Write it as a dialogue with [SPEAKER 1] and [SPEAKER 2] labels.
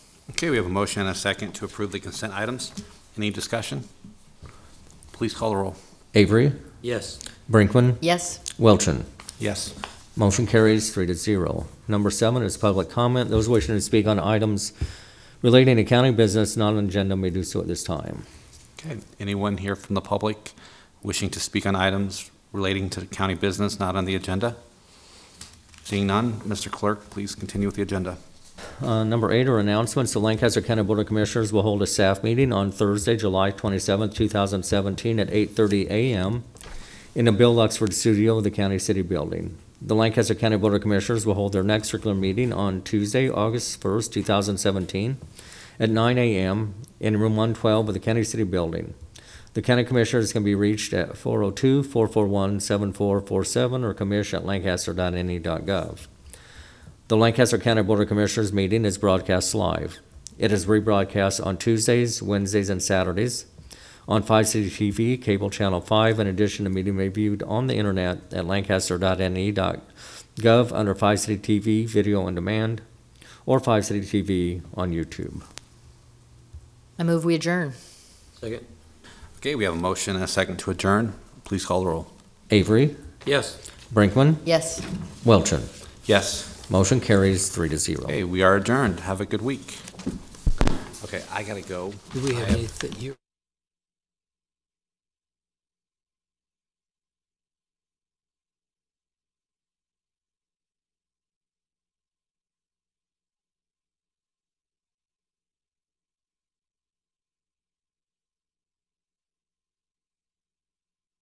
[SPEAKER 1] Okay, we have a motion and a second to approve the consent items. Any discussion? Please call the roll.
[SPEAKER 2] Avery,
[SPEAKER 3] Yes.
[SPEAKER 2] Brinkman,
[SPEAKER 4] Yes.
[SPEAKER 2] Wilchin.
[SPEAKER 1] Yes.
[SPEAKER 2] Motion carries three to zero. Number seven is public comment. Those wishing to speak on items relating to county business not on agenda may do so at this time.
[SPEAKER 1] Okay, anyone here from the public wishing to speak on items relating to county business not on the agenda? Seeing none, Mr. Clerk, please continue with the agenda.
[SPEAKER 2] Uh, Number eight are announcements. The Lancaster County Board of Commissioners will hold a staff meeting on Thursday, July 27, 2017, at 8:30 a.m. in the Bill Luxford Studio of the County City Building. The Lancaster County Board of Commissioners will hold their next regular meeting on Tuesday, August 1, 2017, at 9 a.m. in Room 112 of the County City Building. The County Commissioners can be reached at 402-441-7447 or E commish@lancaster.ne.gov. The Lancaster County Board of Commissioners meeting is broadcast live. It is rebroadcast on Tuesdays, Wednesdays, and Saturdays on 5 City TV, cable channel 5. In addition, the meeting may be viewed on the internet at lancaster.ne.gov E under 5 City TV Video on Demand or 5 City TV on YouTube.
[SPEAKER 4] I move we adjourn.
[SPEAKER 3] Second.
[SPEAKER 1] Okay, we have a motion and a second to adjourn. Please call the roll.
[SPEAKER 2] Avery,
[SPEAKER 3] Yes.
[SPEAKER 2] Brinkman,
[SPEAKER 4] Yes.
[SPEAKER 2] Wilchin.
[SPEAKER 1] Yes.
[SPEAKER 2] Motion carries 3 to 0.
[SPEAKER 1] Okay, we are adjourned. Have a good week. Okay, I gotta go.
[SPEAKER 3] Do we have anything here?